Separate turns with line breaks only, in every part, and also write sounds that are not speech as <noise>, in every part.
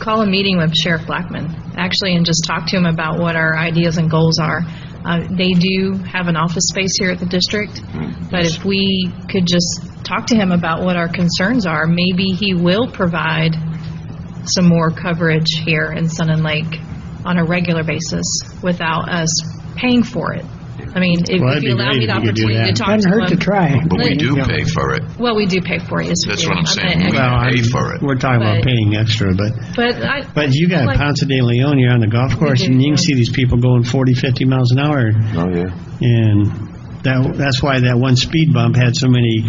call a meeting with Sheriff Blackman, actually, and just talk to him about what our ideas and goals are. Uh, They do have an office space here at the district,
Mm-hmm.
but if we could just talk to him about what our concerns are, maybe he will provide some more coverage here in Sun and Lake on a regular basis without us paying for it. I mean, if
Well,
if
that'd
you
be
allow me
great
the
if you could do
opportunity to
that.
talk to him.
Doesn't hurt to try.
But we do pay for it.
Well, we do pay for it, yes. we
That's
do.
what I'm saying.
not-
We-
Well,
pay
I'm-
for it.
We're talking about
But-
paying extra, but,
But I.
but you got
like-
Ponce de Leon, you're on the golf course, and you can see these people going 40, 50 miles an hour,
Oh, yeah.
and that, that's why that one speed bump had so many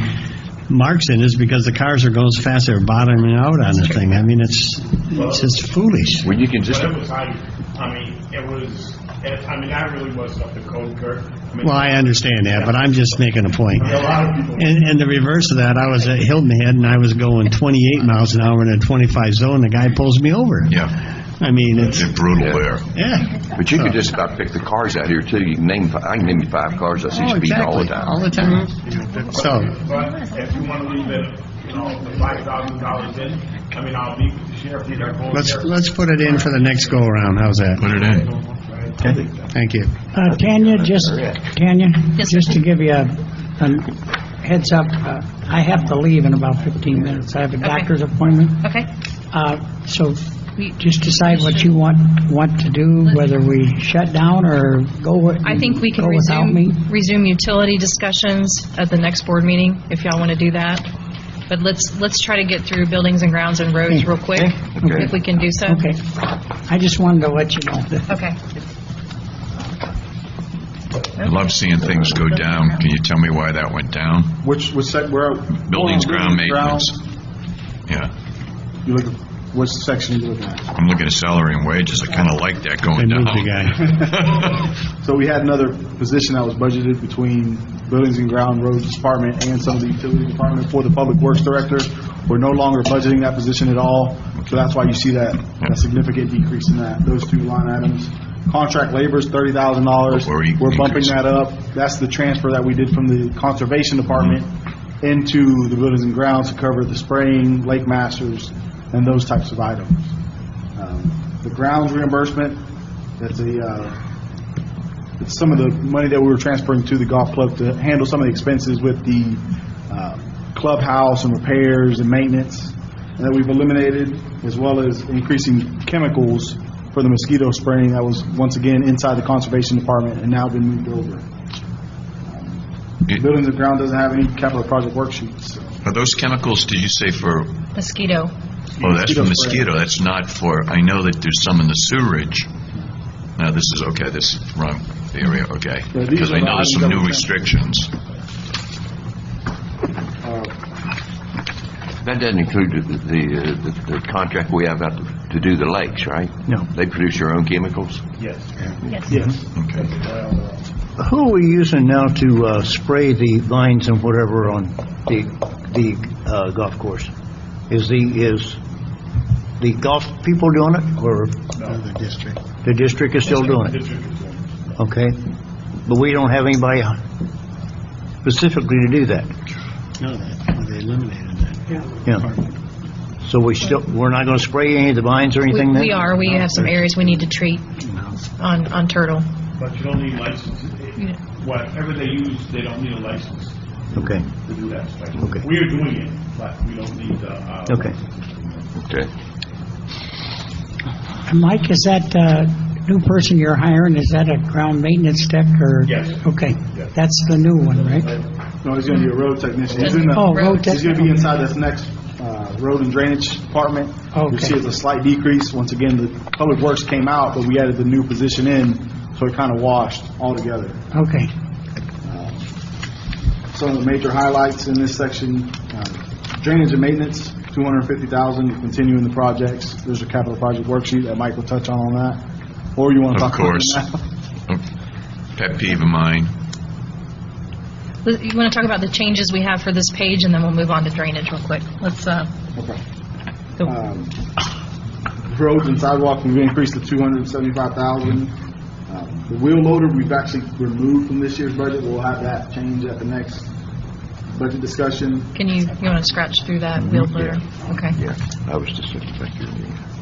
marks in it, is because the cars are going so fast, they're bottoming out on the thing. I mean, it's, it's just foolish.
Well, you can just,
But it was, I, I mean, it was, it- I mean, that really wasn't up to code, Kurt. I mean,
Well, I understand that, but I'm just making a point.
A lot of people.
And, and the reverse of that, I was at Hilton Head, and I was going 28 miles an hour in a 25 zone, the guy pulls me over.
yeah,
I mean, it's,
it's brutal there.
yeah.
But you could just about pick the cars out here too. You can name, fi- I can name you five cars I see
Oh,
speeding all the
exactly. All
time.
the time. So,
But if you want to leave it, you know, the five thousand dollars in, I mean, I'll meet with the sheriff, he's our goal
let's,
sheriff.
let's put it in for the next go-around, how's that?
Put it in.
Okay. Thank you.
Uh, Tanya, just, Tanya,
Yes,
just to give you a a heads up, uh, I have to leave in about 15 minutes. I have a doctor's appointment.
Okay.
Uh, So just decide what you want, want to do, whether we shut down or go with...
I think we can
Go without me.
resume, resume utility discussions at the next board meeting, if y'all want to do that. But let's, let's try to get through buildings and grounds and roads real quick,
Hmm. Okay.
if we can do so.
Okay. I just wanted to let you know that
Okay.
I love seeing things go down. Can you tell me why that went down?
Which, what's that, where?
Buildings, ground
ground.
maintenance. Yeah.
You look, what section you looking at?
I'm looking at salary and wages. I kind of like that
I
going down.
moved the guy.
So we had another position that was budgeted between Buildings and Ground, Roads Department, and some of the Utility Department for the Public Works Director. We're no longer budgeting that position at all, so that's why you see that, that significant decrease in that, those two line items. Contract labor's thirty thousand dollars.
Where we
We're bumping
increased.
that up. That's the transfer that we did from the Conservation Department into the Buildings and Grounds to cover the spraying, Lake Masters, and those types of items. Um, The grounds reimbursement, that's a, uh, it's some of the money that we were transferring to the golf club to handle some of the expenses with the uh, clubhouse and repairs and maintenance that we've eliminated, as well as increasing chemicals for the mosquito spraying that was once again inside the conservation department and now been moved over.
It-
Buildings and ground doesn't have any capital project worksheets, so.
<laughs> Are those chemicals, did you say for,
Mosquito.
oh, that's for
Mosquito spray.
mosquito. That's not for, I know that there's some in the sewerage. Now, this is, okay, this is wrong area, okay.
Yeah, these
Because
are
I
the
know there's
items
some
that
new
we-
restrictions.
Uh,
That doesn't include the, the, uh, the- the contract we have out to- to do the lakes, right?
No.
They produce your own chemicals?
Okay.
Who are we using now to uh, spray the vines and whatever on the, the uh, golf course? Is the, is the golf people doing it, or? The district. The district is still doing it? Okay, but we don't have anybody specifically to do that,
No, that- they eliminated that.
yeah. So we still, we're not gonna spray any of the vines or
We
anything then?
we are, we have some areas we need to treat on, on Turtle.
But you don't need licenses.
Yeah.
Whatever they use, they don't need a license
Okay,
to do that. stuff.
Okay.
We are doing it, but we don't need, uh. uh,
okay.
Okay.
Mike, is that uh, new person you're hiring, is that a ground maintenance tech or?
Yes.
Okay, that's the new one, right?
No, he's gonna be a road technician. He's in the-
Oh, road
He's gonna
tech-
be inside this next, uh, road and drainage department. You see
Okay.
it's a slight decrease. Once again, the public works came out, but we added the new position in, so it kind of washed altogether.
Okay.
Some of the major highlights in this section, uh, drainage and maintenance, two hundred and fifty thousand, continuing the projects. There's a capital project worksheet that Mike will touch on on that, or you want to
Of
talk about it
course.
now?
Oh, Pet peeve of mine.
You want to talk about the changes we have for this page, and then we'll move on to drainage real quick. Let's, uh,
Um, Roads and sidewalk, we've increased to two hundred and seventy-five thousand. Um, The wheel loader, we've actually removed from this year's budget. We'll have that change at the next budget discussion.
Mm-hmm.
can you, you want to scratch through that wheel blur? Okay.
Yeah, I was just, thank you.